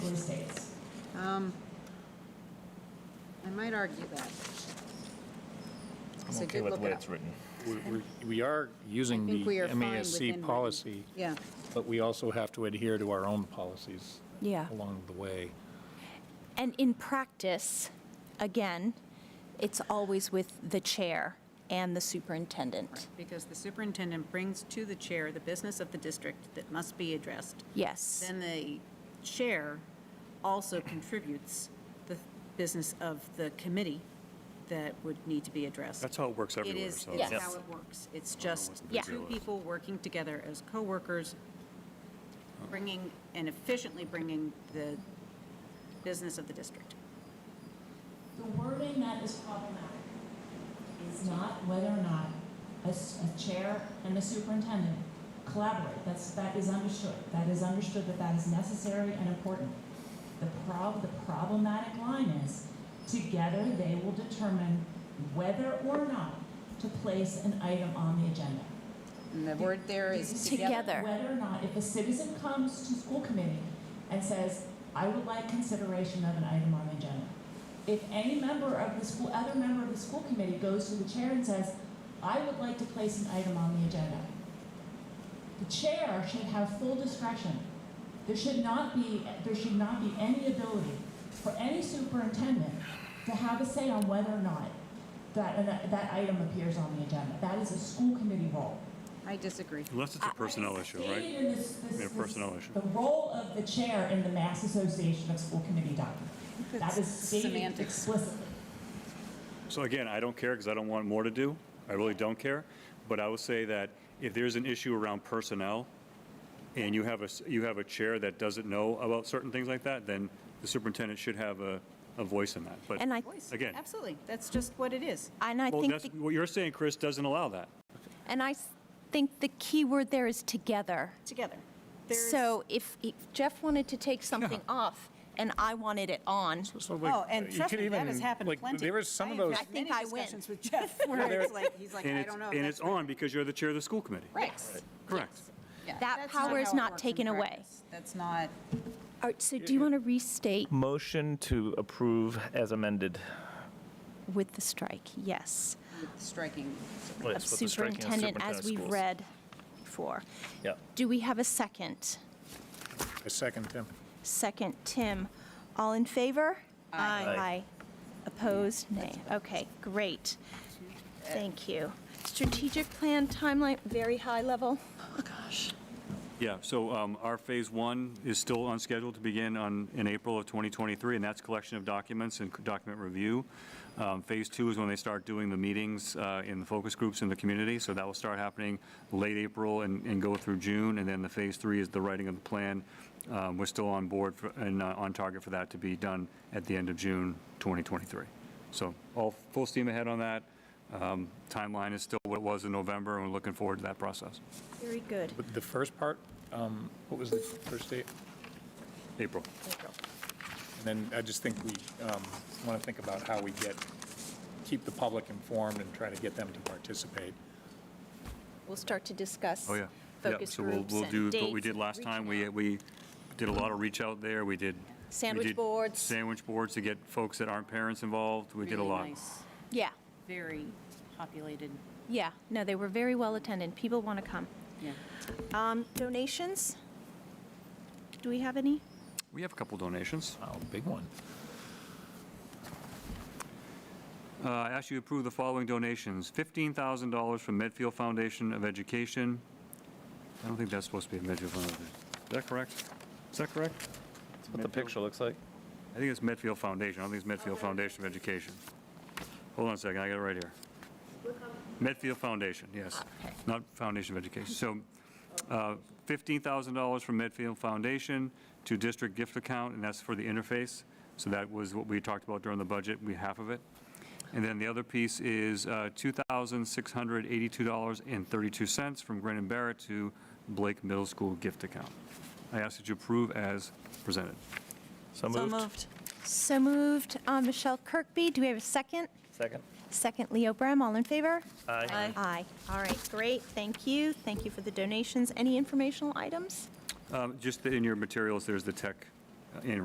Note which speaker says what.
Speaker 1: Um, I might argue that.
Speaker 2: I'm
Speaker 1: So
Speaker 2: okay
Speaker 1: did
Speaker 2: with
Speaker 1: look
Speaker 2: the way
Speaker 1: it up.
Speaker 2: it's written.
Speaker 3: We're- we're- We are using
Speaker 1: I think
Speaker 3: the
Speaker 1: we are fine within
Speaker 3: MASC
Speaker 1: reason.
Speaker 3: policy,
Speaker 1: Yeah,
Speaker 3: but we also have to adhere to our own policies
Speaker 4: Yeah.
Speaker 3: along the way.
Speaker 4: And in practice, again, it's always with the chair and the superintendent.
Speaker 1: because the superintendent brings to the chair the business of the district that must be addressed.
Speaker 4: Yes,
Speaker 1: Then the chair also contributes the business of the committee that would need to be addressed.
Speaker 5: That's how it works
Speaker 1: It
Speaker 5: everywhere,
Speaker 1: is,
Speaker 5: so.
Speaker 1: it's
Speaker 4: Yes.
Speaker 1: how it works. It's just
Speaker 4: Yeah.
Speaker 1: two people working together as coworkers, bringing, and efficiently bringing the business of the district.
Speaker 6: The wording that is problematic is not whether or not a, s- a chair and a superintendent collaborate. That's, that is understood. That is understood that that is necessary and important. The prob, the problematic line is, together they will determine whether or not to place an item on the agenda.
Speaker 1: And the word there is together.
Speaker 4: Together.
Speaker 6: Whether or not, if a citizen comes to school committee and says, I would like consideration of an item on the agenda. If any member of the school, other member of the school committee goes to the chair and says, I would like to place an item on the agenda. The chair should have full discretion. There should not be, there should not be any ability for any superintendent to have a say on whether or not that, that item appears on the agenda. That is a school committee role.
Speaker 1: I disagree.
Speaker 5: Unless it's a personnel
Speaker 6: I
Speaker 5: issue, right?
Speaker 6: stated in this- this-
Speaker 5: Yeah, personnel issue.
Speaker 6: The role of the chair in the Mass Association of School Committee document. That is stated
Speaker 1: Semantics.
Speaker 6: explicitly.
Speaker 5: So again, I don't care because I don't want more to do. I really don't care. But I would say that if there's an issue around personnel and you have a, s- you have a chair that doesn't know about certain things like that, then the superintendent should have a, a voice in that. But,
Speaker 4: and I,
Speaker 1: Voice.
Speaker 5: Again.
Speaker 1: Absolutely. That's just what it is.
Speaker 4: and I
Speaker 5: well,
Speaker 4: think,
Speaker 5: that's,
Speaker 4: the-
Speaker 5: what you're saying, Chris, doesn't allow that.
Speaker 4: and I s- think the key word there is together.
Speaker 1: Together. There's-
Speaker 4: So if if Jeff wanted to take something off and I wanted it on,
Speaker 3: So, like,
Speaker 1: Oh, and
Speaker 3: you
Speaker 1: trust
Speaker 3: could
Speaker 1: me, that
Speaker 3: even-
Speaker 1: has happened
Speaker 3: like,
Speaker 1: plenty.
Speaker 3: There was some of
Speaker 1: have
Speaker 3: those,
Speaker 1: had
Speaker 4: I think
Speaker 1: many
Speaker 4: I win.
Speaker 1: discussions with Jeff where it's like, he's like,
Speaker 5: And
Speaker 1: I
Speaker 5: it's,
Speaker 1: don't know.
Speaker 5: and it's on because you're the chair of the school committee. Correct.
Speaker 4: That power is not taken away.
Speaker 1: That's not,
Speaker 4: All right, so do you want to restate
Speaker 2: Motion to approve as amended.
Speaker 4: with the strike? Yes.
Speaker 1: striking.
Speaker 4: Of superintendent as we've read before.
Speaker 2: Yep.
Speaker 4: Do we have a second?
Speaker 3: a second, Tim.
Speaker 4: Second, Tim. All in favor?
Speaker 2: Aye.
Speaker 4: Opposed? Nay. Okay, great. Thank you. Strategic plan timeline, very high level.
Speaker 5: Yeah, so um, our Phase 1 is still on schedule to begin on, in April of 2023, and that's collection of documents and document review. Um, Phase 2 is when they start doing the meetings uh, in the focus groups in the community, so that will start happening late April and and go through June, and then the Phase 3 is the writing of the plan. Um, We're still on board for- and uh, on target for that to be done at the end of June 2023. So all full steam ahead on that. Um, Timeline is still what it was in November, and we're looking forward to that process.
Speaker 4: Very good.
Speaker 3: But the first part, um, what was the first date?
Speaker 5: April.
Speaker 3: And then I just think we want to think about how we get, keep the public informed and try to get them to participate.
Speaker 4: We'll start to discuss
Speaker 5: Oh, yeah. Yeah,
Speaker 4: focus
Speaker 5: so we'll,
Speaker 4: groups
Speaker 5: we'll
Speaker 4: and
Speaker 5: do what we
Speaker 4: dates
Speaker 5: did
Speaker 4: and
Speaker 5: last time.
Speaker 4: reaching
Speaker 5: We, we
Speaker 4: out.
Speaker 5: did a lot of reach out there. We did. we
Speaker 4: Sandwich
Speaker 5: did
Speaker 4: boards.
Speaker 5: Sandwich boards to get folks that aren't parents involved. We did a lot.
Speaker 4: Yeah,
Speaker 1: Very populated,
Speaker 4: yeah. No, they were very well attended. People want to come.
Speaker 1: yeah.
Speaker 4: Um, Donations? Do we have any?
Speaker 5: We have a couple donations.
Speaker 3: Wow, Oh, big one.
Speaker 5: Uh, I ask you to approve the following donations. $15,000 from Medfield Foundation of Education. I don't think that's supposed to be a Medfield Foundation. Is that correct? Is that correct?
Speaker 2: What the picture looks like.
Speaker 5: I think it's Medfield Foundation. I don't think it's Medfield Foundation of Education. Hold on a second, I got it right here. Medfield Foundation, yes. Not Foundation of Education. So uh, $15,000 from Medfield Foundation to district gift account, and that's for the interface. So that was what we talked about during the budget, we, half of it. And then the other piece is uh, $2,682.32 from Grannon Barrett to Blake Middle School gift account. I ask that you approve as presented.
Speaker 2: So moved.
Speaker 4: So moved, um, Michelle Kirkby. Do we have a second?
Speaker 2: Second.
Speaker 4: Second, Leo Brem, all in favor?
Speaker 2: Aye.
Speaker 4: Aye. All right, great, thank you. Thank you for the donations. Any informational items?
Speaker 5: Um, Just in your materials, there's the tech uh, annual